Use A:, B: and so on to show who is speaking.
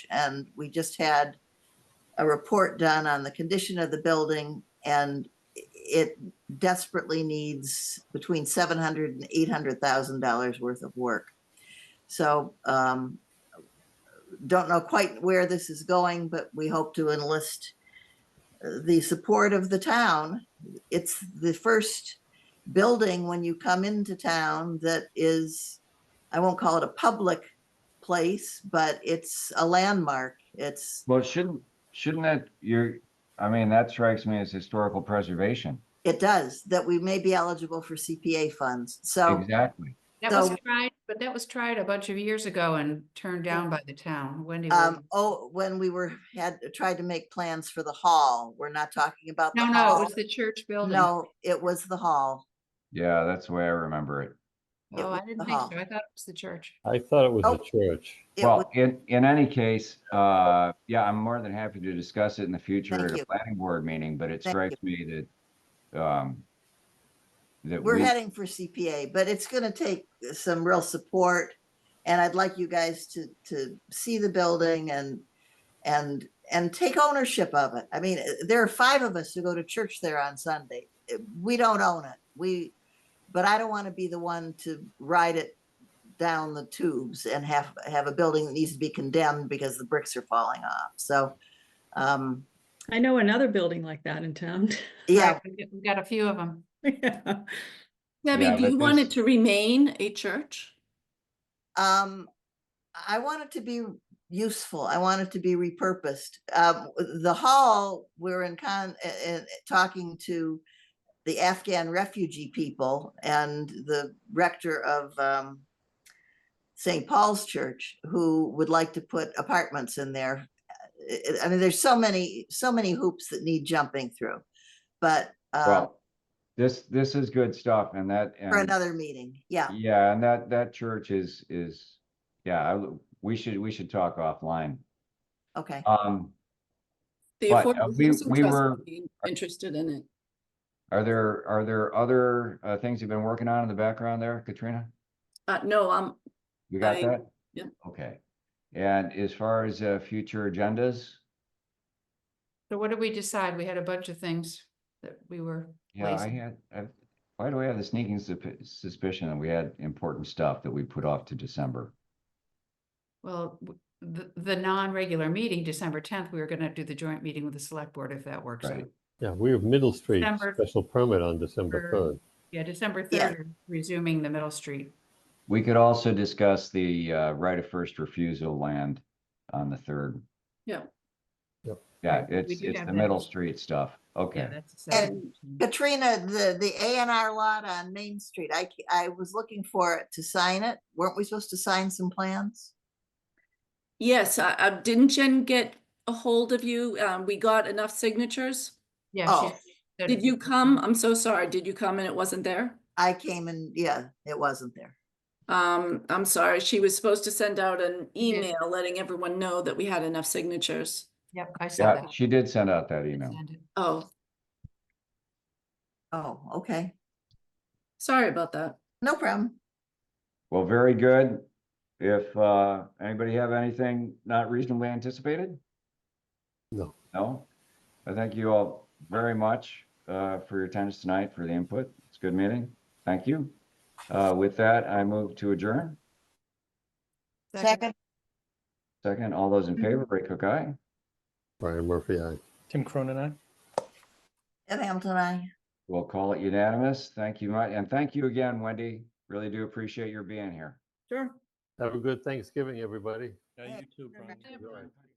A: much. And we just had a report done on the condition of the building and it desperately needs between seven hundred and eight hundred thousand dollars worth of work. So um, don't know quite where this is going, but we hope to enlist uh, the support of the town. It's the first building when you come into town that is, I won't call it a public place, but it's a landmark. It's,
B: Well, shouldn't, shouldn't that, you're, I mean, that strikes me as historical preservation.
A: it does, that we may be eligible for CPA funds. So
B: Exactly.
C: That was
A: So-
C: tried, but that was tried a bunch of years ago and turned down by the town. Wendy,
A: Um,
C: Williams.
A: oh, when we were, had, tried to make plans for the hall, we're not talking about the
C: no, no, it
A: hall.
C: was the church building.
A: uh-huh. No, it was the hall.
B: Yeah, that's the way I remember it.
A: it
C: Oh,
A: was
C: I
A: uh-huh. the
C: didn't think so.
A: hall.
C: I thought it was the church.
D: I thought it was
A: Oh.
D: a church.
A: It was,
B: Well, in, in any case, uh, yeah, I'm more than happy to discuss it in the future
A: Thank
B: at
A: you.
B: a planning board meeting, but it
A: Thank
B: strikes me that, um, that
A: we're
B: we,
A: heading for CPA, but it's gonna take some real support. And I'd like you guys to, to see the building and, and, and take ownership of it. I mean, eh, there are five of us who go to church there on Sunday. Eh, We don't own it. We, but I don't wanna be the one to ride it down the tubes and have, have a building that needs to be condemned because the bricks are falling off. So, um,
E: I know another building like that in town.
A: yeah,
C: Right, we got- We got a few of them.
E: Yeah.
B: Yeah,
F: Debbie, do
B: but
F: you want
B: this-
F: it to remain a church?
A: Um, I want it to be useful. I want it to be repurposed. Um, the hall, we're in con, uh, uh, talking to the Afghan refugee people and the rector of, um, St. Paul's Church, who would like to put apartments in there. Uh, I I mean, there's so many, so many hoops that need jumping through, but, uh,
B: well, this, this is good stuff and that.
A: for
B: and-
A: another meeting, yeah.
B: Yeah, and that, that church is, is, yeah, I, we should, we should talk offline.
A: Okay,
B: Um,
F: The
B: But, uh,
F: Affordable
B: we-
F: Housing
B: we
F: Trust
B: were-
F: would be Interested in it.
B: are there, are there other, uh, things you've been working on in the background there, Katrina?
F: Uh, no, um,
B: We got
F: I-
B: that?
F: yep.
B: Okay. And as far as, uh, future agendas?
C: So what did we decide? We had a bunch of things that we were
B: Yeah, I
C: Lazy.
B: had, I, why do I have the sneaking sup- suspicion that we had important stuff that we put off to December?
C: Well, w- the, the non-regular meeting, December tenth, we were gonna do the joint meeting with the select board if that works. out.
B: Right.
D: Yeah, we have Middle Street
C: December
D: special permit on December
C: third.
D: third.
C: Yeah, December
A: Yeah.
C: third, resuming the Middle Street.
B: We could also discuss the, uh, right of first refusal land on the third.
F: Yeah.
D: Yep.
B: Yeah,
C: Right, we
B: it's,
C: do
B: it's
C: have
B: the
C: that.
B: Middle Street stuff.
C: Yeah,
B: Okay.
C: that's. the
A: And-
C: second meeting.
A: Katrina, the, the A and R lot on Main Street, I, ca- I was looking for it to sign it. Weren't we supposed to sign some plans?
F: yes, I, I, didn't Jen get a hold of you? Um, we got enough signatures?
C: Yeah. she
A: Oh.
C: said-
F: Did you come? I'm so sorry. Did you come and it wasn't there?
A: I came and, yeah, it wasn't there.
F: Um, I'm sorry. She was supposed to send out an
C: did.
F: email letting everyone know that we had enough signatures.
C: Yep, I saw
B: Yeah,
C: that.
B: she did send out that email.
C: Send it.
F: Oh,
A: Oh, okay.
F: sorry about that.
A: No problem.
B: Well, very good. If, uh, anybody have anything not reasonably anticipated?
D: No.
B: No? I thank you all very much, uh, for your attendance tonight, for the input. It's a good meeting. Thank you. Uh, with that, I move to adjourn.
A: Second,
B: Second, all those in favor, Ray Cook, aye.
D: Brian Murphy, I.
G: Tim Cronin, aye.
A: and Hamilton, I.
B: We'll call it unanimous. Thank you much. And thank you again, Wendy. Really do appreciate your being here.
F: Sure.
D: Have a good Thanksgiving, everybody.
G: Yeah, you too, Brian.
D: You're right.